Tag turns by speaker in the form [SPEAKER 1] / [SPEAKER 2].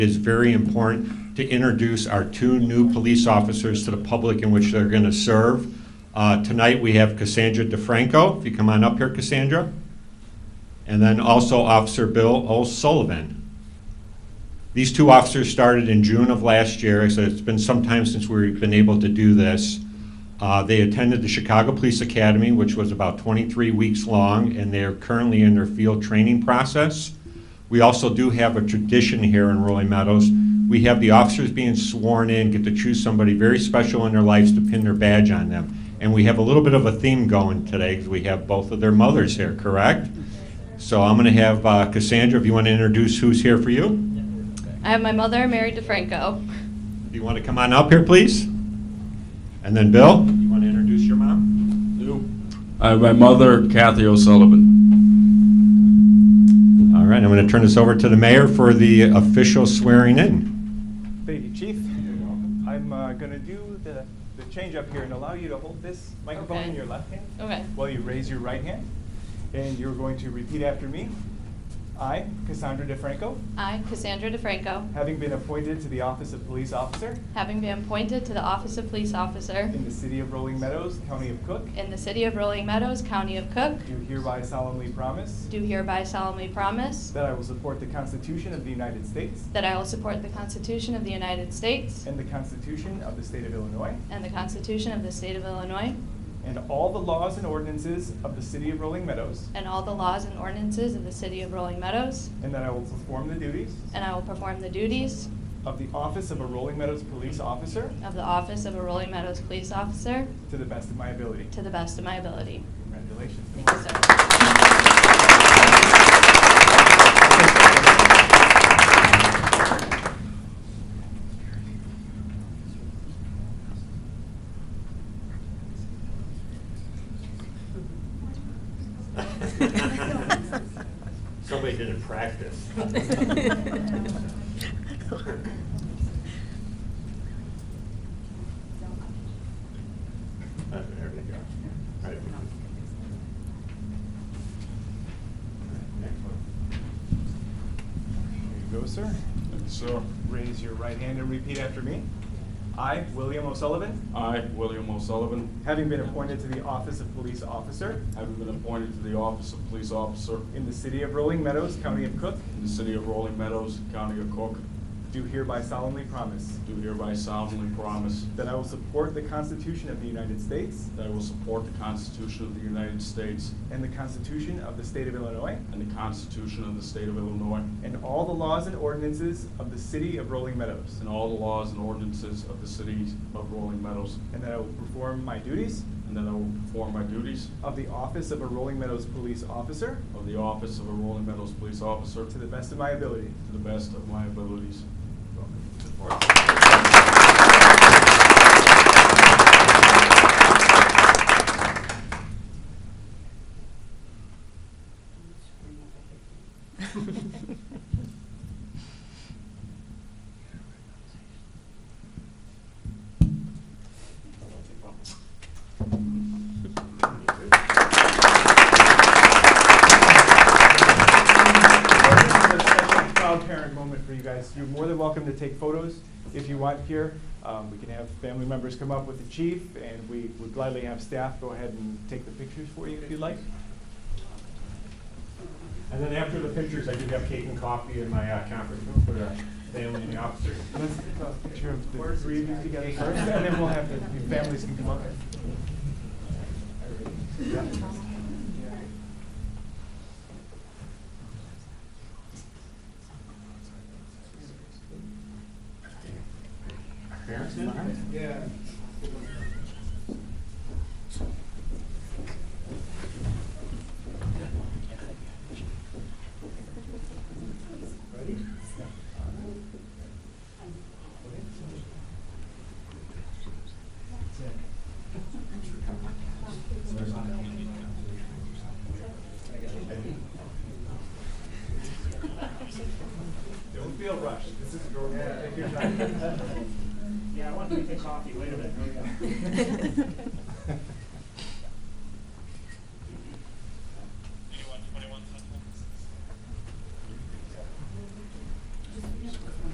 [SPEAKER 1] It is very important to introduce our two new police officers to the public in which they're going to serve. Uh, Tonight, we have Cassandra DeFranco. If you come on up here, Cassandra. And then also Officer Bill O'Sullivan. These two officers started in June of last year, so it's been some time since we've been able to do this. Uh, They attended the Chicago Police Academy, which was about 23 weeks long, and they're currently in their field training process. We also do have a tradition here in Rolling Meadows. We have the officers being sworn in, get to choose somebody very special in their lives to pin their badge on them. And we have a little bit of a theme going today, because we have both of their mothers here, correct? So I'm going to have uh, Cassandra, if you want to introduce who's here for you.
[SPEAKER 2] I have my mother, Mary DeFranco.
[SPEAKER 1] Do you want to come on up here, please? And then Bill, you want to introduce your mom?
[SPEAKER 3] I, Uh, my mother, Kathy O'Sullivan.
[SPEAKER 1] All right, I'm going to turn this over to the mayor for the official swearing in.
[SPEAKER 4] Thank you, Chief. I'm uh, gonna do the, the change up here and allow you to hold this microphone in
[SPEAKER 2] Okay.
[SPEAKER 4] your left hand
[SPEAKER 2] Okay.
[SPEAKER 4] while you raise your right hand. And you're going to repeat after me. I, Cassandra DeFranco,
[SPEAKER 2] I, Cassandra DeFranco,
[SPEAKER 4] having been appointed to the office of police officer
[SPEAKER 2] having been appointed to the office of police officer
[SPEAKER 4] in the city of Rolling Meadows, county of Cook,
[SPEAKER 2] in the city of Rolling Meadows, county of Cook,
[SPEAKER 4] do hereby solemnly promise
[SPEAKER 2] do hereby solemnly promise
[SPEAKER 4] that I will support the Constitution of the United States
[SPEAKER 2] that I will support the Constitution of the United States
[SPEAKER 4] and the Constitution of the state of Illinois
[SPEAKER 2] and the Constitution of the state of Illinois
[SPEAKER 4] and all the laws and ordinances of the city of Rolling Meadows,
[SPEAKER 2] and all the laws and ordinances of the city of Rolling Meadows,
[SPEAKER 4] and that I will perform the duties
[SPEAKER 2] and I will perform the duties
[SPEAKER 4] of the office of a Rolling Meadows police officer
[SPEAKER 2] of the office of a Rolling Meadows police officer
[SPEAKER 4] to the best of my ability.
[SPEAKER 2] to the best of my ability.
[SPEAKER 4] Congratulations.
[SPEAKER 2] Thank you, sir.
[SPEAKER 1] Somebody didn't practice. There we go. All right. Next one.
[SPEAKER 4] There you go, sir. So raise your right hand and repeat after me. I, William O'Sullivan,
[SPEAKER 3] I, William O'Sullivan,
[SPEAKER 4] having been appointed to the office of police officer
[SPEAKER 3] having been appointed to the office of police officer
[SPEAKER 4] in the city of Rolling Meadows, county of Cook,
[SPEAKER 3] in the city of Rolling Meadows, county of Cook,
[SPEAKER 4] do hereby solemnly promise
[SPEAKER 3] do hereby solemnly promise
[SPEAKER 4] that I will support the Constitution of the United States
[SPEAKER 3] that I will support the Constitution of the United States
[SPEAKER 4] and the Constitution of the state of Illinois
[SPEAKER 3] and the Constitution of the state of Illinois
[SPEAKER 4] and all the laws and ordinances of the city of Rolling Meadows,
[SPEAKER 3] and all the laws and ordinances of the city of Rolling Meadows,
[SPEAKER 4] and that I will perform my duties
[SPEAKER 3] and that I will perform my duties
[SPEAKER 4] Of the office of a Rolling Meadows police officer.
[SPEAKER 3] of the office of a Rolling Meadows police officer
[SPEAKER 4] To the best of my ability.
[SPEAKER 3] to the best of my abilities.
[SPEAKER 4] This is a special proud parent moment for you guys. You're more than welcome to take photos if you want here. Um, We can have family members come up with the chief, and we would gladly have staff go ahead and take the pictures for you if you'd like.
[SPEAKER 1] And then after the pictures, I do have cake and coffee in my uh, conference room for the family and the officers.
[SPEAKER 4] Let's get a picture of the three of you together first, and then we'll have the the families can come up.
[SPEAKER 1] Parents in behind?
[SPEAKER 4] Don't feel rushed. This is your moment. Take your time.
[SPEAKER 5] Yeah, I wanted to make the coffee, wait a minute.